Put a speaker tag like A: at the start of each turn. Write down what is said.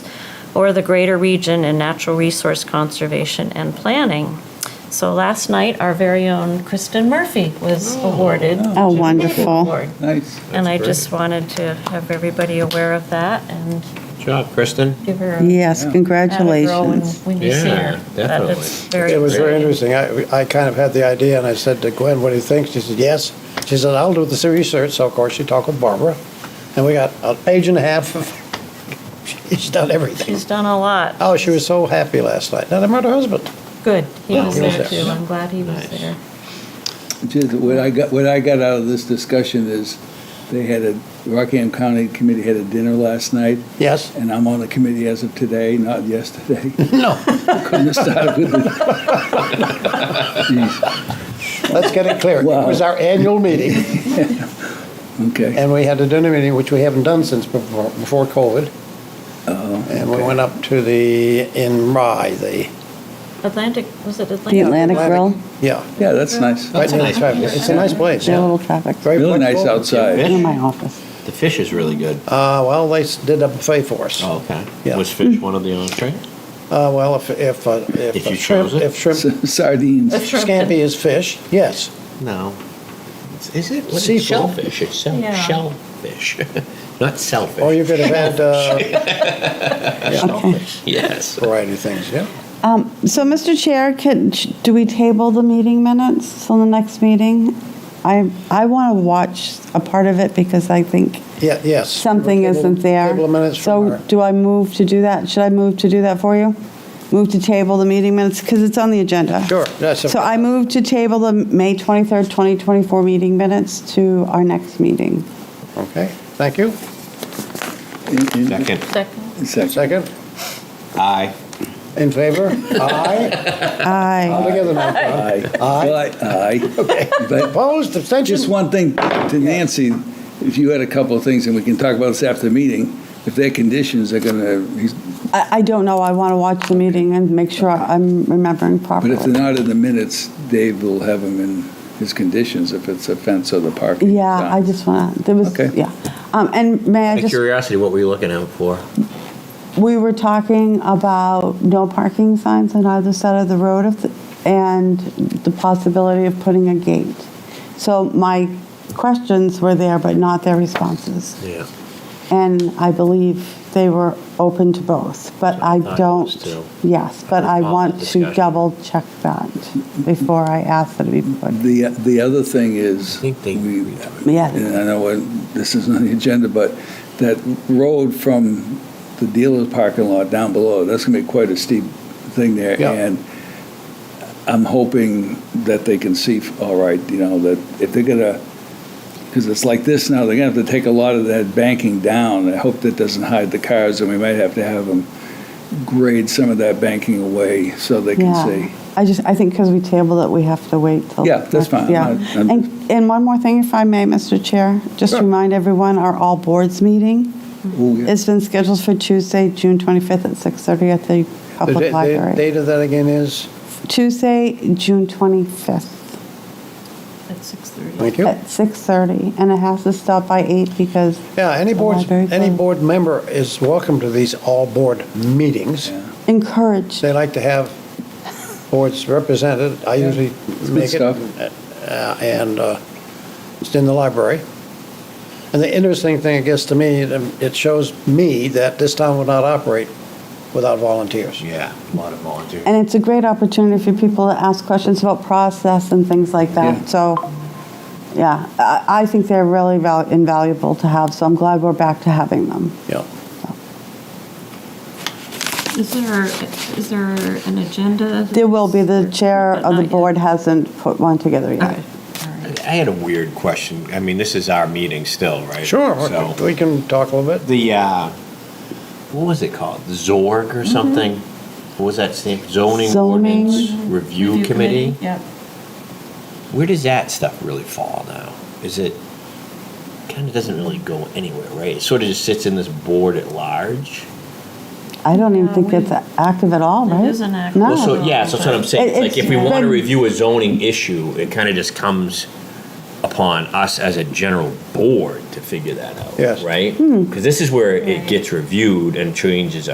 A: or the greater region in natural resource conservation and planning. So last night, our very own Kristen Murphy was awarded.
B: Oh,
A: the
B: wonderful.
A: award.
C: Nice.
A: And I just wanted to have everybody aware of that and
D: Good job, Kristen.
A: give her a
B: Yes,
A: atta girl when-
B: congratulations.
A: When you see
D: Yeah,
A: her. But
D: definitely.
A: it's very
E: It was very
A: exciting.
E: interesting. I, I kind of had the idea, and I said to Gwen, what do you think? She said, yes. She said, I'll do the research. So, of course, she talked with Barbara, and we got a page and a half of, she's done everything.
A: She's done a lot.
E: Oh, she was so happy last night. Now, I met her husband.
A: Good. He
E: Yeah,
A: was
E: he was
A: there
E: there.
A: too. I'm glad he was
D: Nice.
A: there.
C: Just what I got, what I got out of this discussion is, they had a, Rockham County Committee had a dinner last night,
E: Yes?
C: and I'm on the committee as of today, not yesterday.
E: No.
C: Couldn't have started with it. Jeez,
E: Let's get it clear. It
C: Wow.
E: was our annual meeting,
C: Okay,
E: and we had a dinner meeting, which we haven't done since before, before COVID.
C: oh,
E: And we went up to the, in Rye, the,
A: Atlantic, was it Atlantic?
B: The Atlantic
E: Atlantic.
B: Grill,
E: yeah.
C: yeah, that's nice.
E: Right
D: That's a
E: near the
D: nice
E: traffic.
D: place.
E: It's a nice place,
B: their
E: yeah.
B: little traffic,
E: Very
C: Really nice
E: flexible.
C: outside.
B: in my office.
D: The fish is really good.
E: Uh, well, they s- did a buffet for us.
D: Oh, okay.
E: Yeah.
D: Was fish one of the entree?
E: Uh, well, if, if, uh, if.
D: If you
E: shrimp-
D: chose it?
E: If shrimp,
C: Sardines.
E: if scampi is fish, yes.
D: No. It's- Is it? What is
E: Seafood.
D: shellfish? It's shell,
A: Yeah.
D: shellfish, not selfish.
E: Or you could have had, uh, yeah,
D: Yes.
E: variety of things, yeah.
B: Um, So, Mr. Chair, can, sh- do we table the meeting minutes till the next meeting? I, I want to watch a part of it because I think
E: Yeah, yes.
B: something
E: Table-
B: isn't there.
E: Table of minutes from
B: So
E: her.
B: do I move to do that? Should I move to do that for you? Move to table the meeting minutes, because it's on the agenda.
E: Sure, that's a-
B: So I move to table the May 23rd, 2024 meeting minutes to our next meeting.
E: Okay, thank you.
C: In- in-
D: Second.
A: Second.
C: Second.
E: Second,
D: Aye.
E: in favor? Aye. All
B: Aye.
E: together now, Tom.
C: Aye. Aye. Aye. But
E: Opposed,
C: Just
E: abstention?
C: one thing to Nancy, if you had a couple of things, and we can talk about this after the meeting, if their conditions are gonna,
B: I, I don't know, I want to watch the meeting and make sure I'm remembering
C: but
B: properly.
C: if they're not in the minutes, Dave will have them in his conditions if it's a fence or the parking.
B: Yeah, I just want to, there was,
C: Okay.
B: yeah. Um, And may I
D: Out of
B: just,
D: curiosity, what were you looking out for?
B: we were talking about no parking signs on either side of the road if the- and the possibility of putting a gate. So my questions were there, but not their responses.
D: Yeah.
B: And I believe they were open to both, but I
D: I thought it was
B: don't,
D: too.
B: yes, but
D: I
B: I
D: recall
B: want
D: that
B: to
D: discussion.
B: double check that before I ask that it be put.
C: The, the other thing is,
D: I think they-
C: we-
B: Yeah.
C: and I know what- this is on the agenda, but that road from the dealer's parking lot down below, that's gonna be quite a steep thing there.
E: Yeah.
C: And I'm hoping that they can see, all right, you know, that if they're gonna, because it's like this now, they're gonna have to take a lot of that banking down. I hope that doesn't hide the cars, and we might have to have them grade some of that banking away so they can
B: Yeah.
C: see.
B: I just, I think because we tabled it, we have to wait till.
C: Yeah, that's
B: next-
C: fine.
B: Yeah.
C: I'm- I'm-
B: And, and one more thing, if I may, Mr. Chair, just
C: Sure.
B: remind everyone, our all boards meeting
C: Ooh, yeah.
B: has been scheduled for Tuesday, June 25th at 6:30 at the
E: The da-
B: public
E: the
B: library.
E: date of that again is,
B: Tuesday, June 25th
A: At 6:30.
E: thank you.
B: at 6:30, and it has to stop by 8 because.
E: Yeah, any
B: the
E: board,
B: library's
E: any
B: on.
E: board member is welcome to these all-board meetings.
B: Encouraged.
E: They like to have boards represented. I
C: Yeah.
E: usually
C: good
E: make it,
C: stuff.
E: uh, and uh, it's in the library. And the interesting thing, I guess, to me, it um, it shows me that this town would not operate without volunteers.
D: Yeah, a lot of volunteers.
B: And it's a great opportunity for people to ask questions about process and things like
C: Yeah.
B: that. So, yeah, I, I think they're really val- invaluable to have, so I'm glad we're back to having them.
E: Yeah.
F: Is there, is there an agenda?
B: There will be, the chair
F: But
B: of
F: not
B: the
F: yet.
B: board hasn't put one together yet.
F: Okay.
D: I had a weird question. I mean, this is our meeting still, right?
E: Sure,
D: So-
E: we can talk a little bit.
D: the uh, what was it called? Zorg or something? What was that stand? Zoning,
B: Zoning
D: ordinance review, committee?
F: Yep.
D: Where does that stuff really fall now? Is it kind of doesn't really go anywhere, right? It sort of just sits in this board at large.
B: I don't even
F: Yeah,
B: think
F: we-
B: it's active at all,
F: It
B: right?
F: isn't active.
B: No.
D: Well, so yeah, so that's what I'm saying.
B: Oh. It-
D: like if
B: it's
D: we want to
B: been-
D: review a zoning issue, it kind of just comes upon us as a general board to figure that out,
E: Yes.
B: Hmm.
D: right? Because this is where it gets reviewed and changes